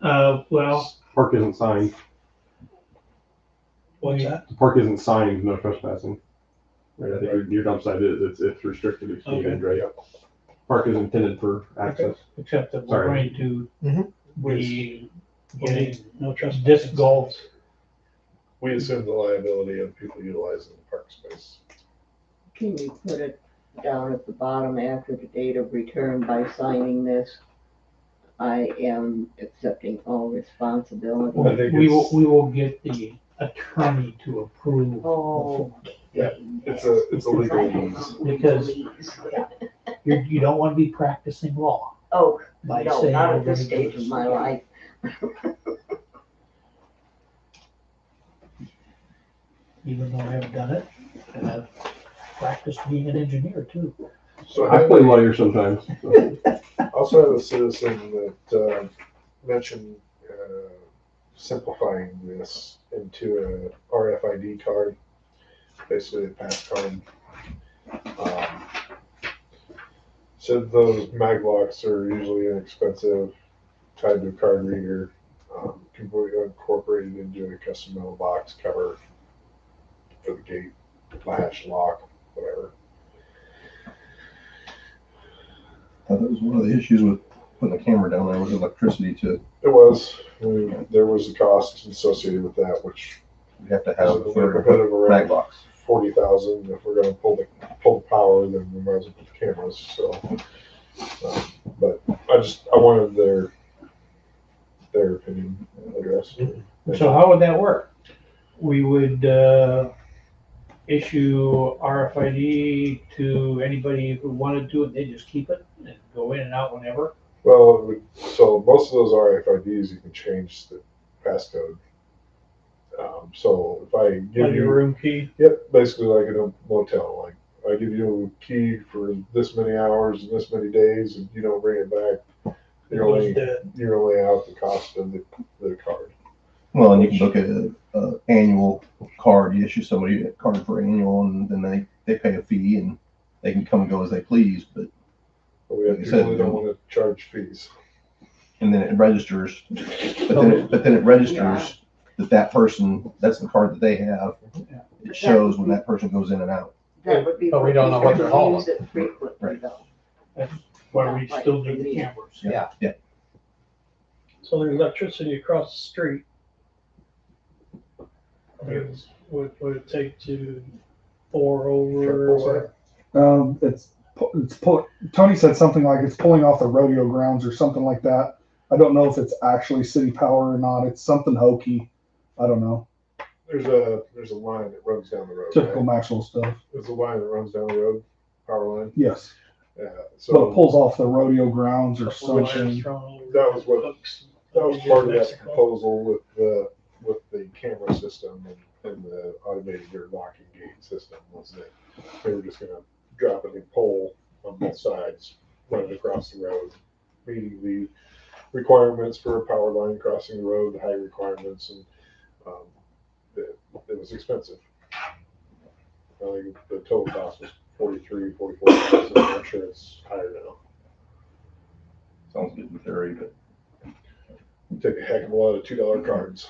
Uh, well, Park isn't signed. What's that? The park isn't signed, no trespassing. Right, I think your- your dump site is, it's, it's restricted, it's deeded, right? Park is intended for access. except that we're Sorry. going to Mhm. be Okay, getting No trust. disc golf. We assume the liability of people utilizing the park space. Can we put it down at the bottom after the date of return by signing this? I am accepting all responsibility. I think We will, it's, we will get the attorney to approve. Oh. it's a, it's a legal means. Because- You, you don't want to be practicing law Oh, by no, saying. not we're at this gonna do stage of my life. Even though I haven't done it, and I've practiced being an engineer too. So I play lawyer sometimes. so. I also have a citizen that, uh, mentioned, uh, simplifying this into a RFID card, basically a pass card. Um, Said those mag locks are usually inexpensive, tied to a card reader, um, completely incorporated into a custom mailbox cover for the gate, latch, lock, whatever. That was one of the issues with putting the camera down there was electricity to, It was. I mean, There was a cost associated with that, which you have to is have in a the third neighborhood of mag around box. forty thousand. If we're gonna pull the, pull the power, then we might as well put the cameras, so. um, But I just, I wanted their, their opinion addressed. So how would that work? We would, uh, issue RFID to anybody who wanted to, and they just keep it and go in and out whenever. Well, it would- so most of those RFIDs, you can change the passcode. Um, so if I give On you your room key, Yep, basically like in a motel, like I give you a key for this many hours and this many days, and you don't bring it back, it you're goes only dead. you're only out the cost of the, the card. Well, and you can look at a, a annual card, you issue somebody a card for annual and then they, they pay a fee and they can come and go as they please, but, But we have Like I people said, that don't no. want to charge fees. and then it registers. But then, it- but then it registers that that person, that's the card that they have. It shows when that person goes in and out. That would be. But we for don't know people what they're who hauling. Use it frequently Right. though. That's why we still do the cameras. Yeah. Yeah, So there's electricity across the street. I mean, it's- What would it take to pour over? or- Um, it's pu- it's pull, Tony said something like it's pulling off the rodeo grounds or something like that. I don't know if it's actually city power or not. It's something hokey. I don't know. There's a there's a line that runs down the road. Typical Right? Maxwell stuff. There's a line that runs down the road, power line. Yes, Yeah. but it So pulls off the rodeo grounds or or wires something. thrown over That was what- hooks? that was part of that Mexico. proposal with the with the camera system and, and the automated or locking gate system was that they were just gonna drop a new pole on both sides, run it across the road, meeting the requirements for a power line crossing the road, the high requirements, and um, it, it was expensive. I think the total cost was forty-three, forty-four thousand, I'm sure it's higher now. sounds good in theory, but Take a heck of a lot of two-dollar cards.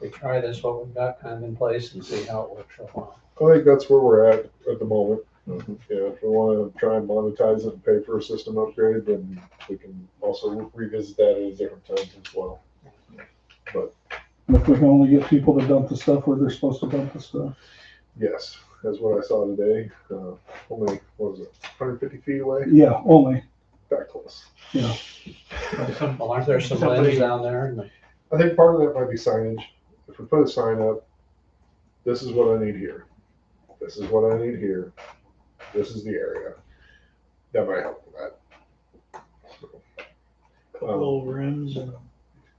We try this, what we've got kind of in place and see how it works for a while. I think that's where we're at at the moment. Mhm. Yeah, if we want to try and monetize it and pay for a system upgrade, then we can also revisit that at a different time as well. And If we can only get people to dump the stuff where they're supposed to dump the stuff. Yes, that's what I saw today. Uh, only, what was it, 150 feet away? Yeah, only. That close. But some- well, Aren't there some Somebody- lanes down there? and- I think part of that might be signage. If we put a sign up, this is what I need here. This is what I need here. This is the area. That might help with that. Couple Um, little rims and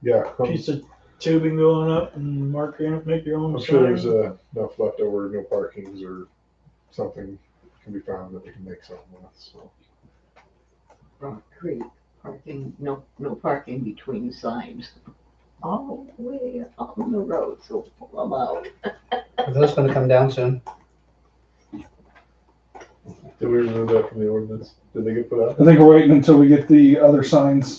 Yeah. a um, piece of tubing going up and mark your, make your own I'm sure there's sign. uh, enough leftover, no parkings or something can be found that we can make something with, so. Creek, parking, no, no parking between signs. All the way on the road, so pull 'em out. Are those gonna come down soon? Did we remove that from the ordinance? Did they get put out? I think we're waiting until we get the other signs